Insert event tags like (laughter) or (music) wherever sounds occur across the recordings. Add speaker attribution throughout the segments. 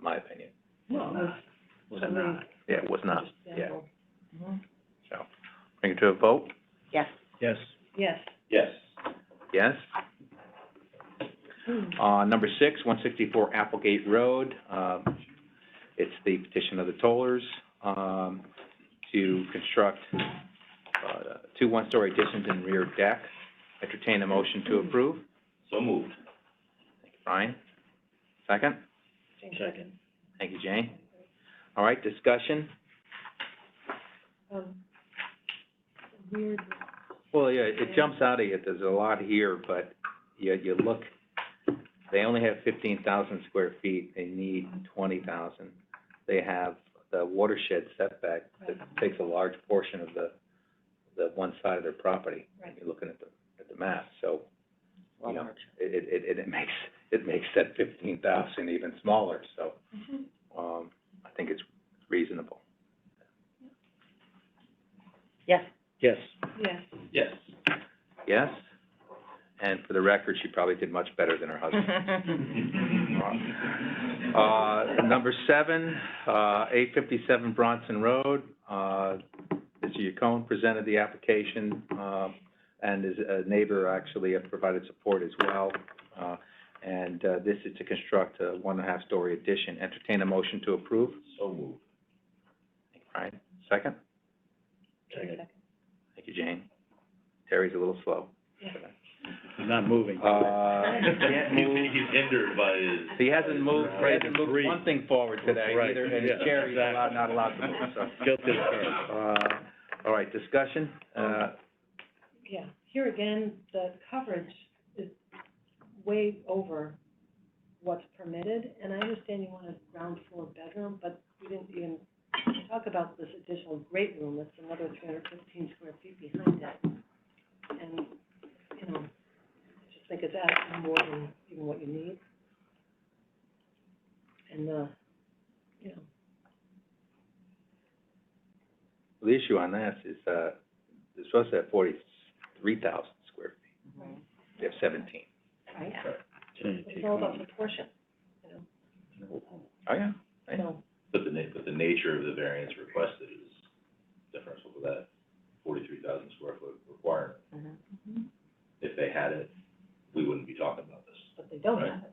Speaker 1: my opinion.
Speaker 2: Well, that's-
Speaker 3: Was
Speaker 2: I mean-
Speaker 3: not.
Speaker 1: Yeah, it was not, yeah,
Speaker 2: Mm-hmm.
Speaker 1: so, bring it to a vote,
Speaker 4: Yes.
Speaker 3: Yes.
Speaker 2: Yes.
Speaker 3: Yes.
Speaker 1: yes?
Speaker 2: Hmm.
Speaker 1: Uh, number six, one sixty-four Applegate Road, um, it's the petition of the tollers, um, to construct, uh, two one-story additions and rear deck. Entertain a motion to approve.
Speaker 3: So moved.
Speaker 1: Brian, second?
Speaker 3: Second.
Speaker 1: Thank you, Jane. All right, discussion?
Speaker 2: Um, weird,
Speaker 1: Well, yeah, it jumps out at you, there's a lot here, but you, you look, they only have fifteen thousand square feet, they need twenty thousand. They have the watershed setback that takes a large portion of the, the one side of their property. when You're looking at the, at the map, so, you know, it, it, it- it makes, it makes that fifteen thousand even smaller, so,
Speaker 2: Mm-hmm.
Speaker 1: um, I think it's reasonable.
Speaker 4: Yes.
Speaker 3: Yes.
Speaker 2: (laughs) yes.
Speaker 3: Yes.
Speaker 1: Yes? And for the record, she probably did much better than her husband. Uh, number seven, uh, eight fifty-seven Bronson Road, uh, Mr. Yacone presented the application, uh, and his uh, neighbor actually have provided support as well. Uh, and, uh, this is to construct a one and a half story addition. Entertain a motion to approve.
Speaker 3: So moved.
Speaker 1: Brian, second? Thank you, Jane. Terry's a little slow.
Speaker 3: He's not moving.
Speaker 1: Uh, (laughs) can't move.
Speaker 3: He's hindered by his.
Speaker 1: He hasn't moved, he hasn't moved one thing forward today
Speaker 3: Right,
Speaker 1: either, and his
Speaker 3: yeah,
Speaker 1: chair is allowed,
Speaker 3: exactly.
Speaker 1: not allowed to move, so.
Speaker 3: (laughs) Guilty as
Speaker 1: Uh, all right, discussion, uh,
Speaker 2: Yeah, here again, the coverage is way over what's permitted, and I understand you want a ground floor bedroom, but we didn't even talk about this additional great room, that's another three hundred fifteen square feet behind it. And, you know, I just think it's asking more than even what you need. And, uh, you know,
Speaker 1: the issue on this is, uh, they're supposed to have forty-three thousand square feet, they have seventeen.
Speaker 2: right, it's all about proportion, you
Speaker 1: Oh, yeah.
Speaker 2: know, so.
Speaker 3: But the na- but the nature of the variance requested is differential to that forty-three thousand square foot requirement. If they had it, we wouldn't be talking about this.
Speaker 2: but they don't
Speaker 3: Right.
Speaker 2: have it.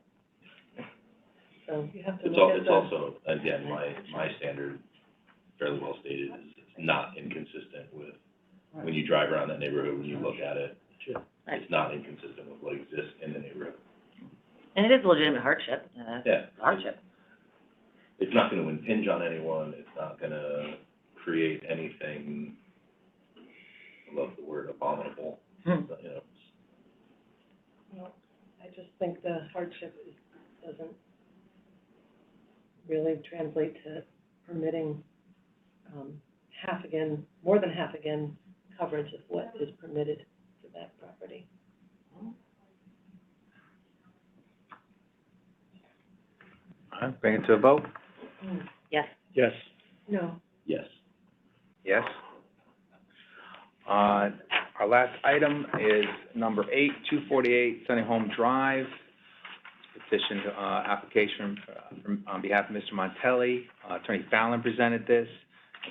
Speaker 2: So you have to
Speaker 3: It's al-
Speaker 2: look at
Speaker 3: it's
Speaker 2: the,
Speaker 3: also, again, my, my standard, fairly well stated, is it's not inconsistent with, when you drive around that neighborhood, when you look at it, it's not inconsistent with what exists in the neighborhood.
Speaker 4: And it is a legitimate hardship, uh,
Speaker 3: Yeah.
Speaker 4: hardship.
Speaker 3: It's not gonna impinge on anyone, it's not gonna create anything, I love the word abominable,
Speaker 4: Hmm.
Speaker 3: but, you know, it's-
Speaker 2: I just think the hardship is, doesn't really translate to permitting, um, half again, more than half again coverage of what is permitted to that property.
Speaker 1: All right, bring it to a vote,
Speaker 4: Yes.
Speaker 3: Yes.
Speaker 2: No,
Speaker 3: Yes.
Speaker 1: yes? Uh, our last item is number eight, two forty-eight Sunny Home Drive. Petition, uh, application uh, from, on behalf of Mr. Montelli. Uh, Attorney Fallon presented this.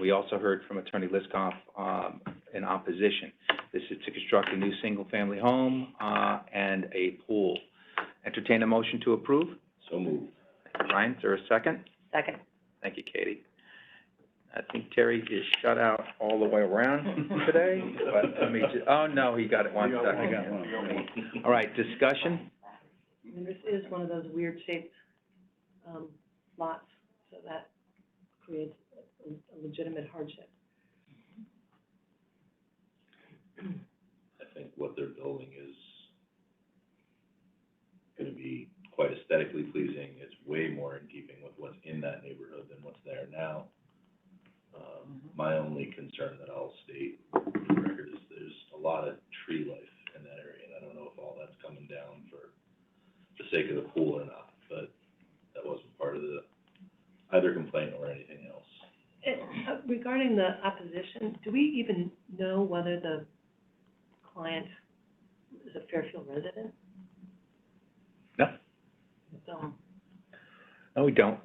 Speaker 1: We also heard from Attorney Liskoff, um, in opposition. This is to construct a new single-family home, uh, and a pool. Entertain a motion to approve.
Speaker 3: So moved.
Speaker 1: Thank you, Brian, is there a second?
Speaker 4: Second.
Speaker 1: Thank you, Katie. I think Terry is shut out all the way around today, but let me ju- oh, no, he got it one second. All right, discussion?
Speaker 2: I mean, this is one of those weird shaped, um, lots, so that creates a- a legitimate hardship.
Speaker 3: I think what they're building is gonna be quite aesthetically pleasing, it's way more in keeping with what's in that neighborhood than what's there now. Um, my only concern that I'll state for the record is there's a lot of tree life in that area, and I don't know if all that's coming down for the sake of the pool or not, but that wasn't part of the, either complaint or anything else.
Speaker 2: Uh, Regarding the opposition, do we even know whether the client is a Fairfield resident?
Speaker 1: No.
Speaker 2: So,
Speaker 1: No, we don't.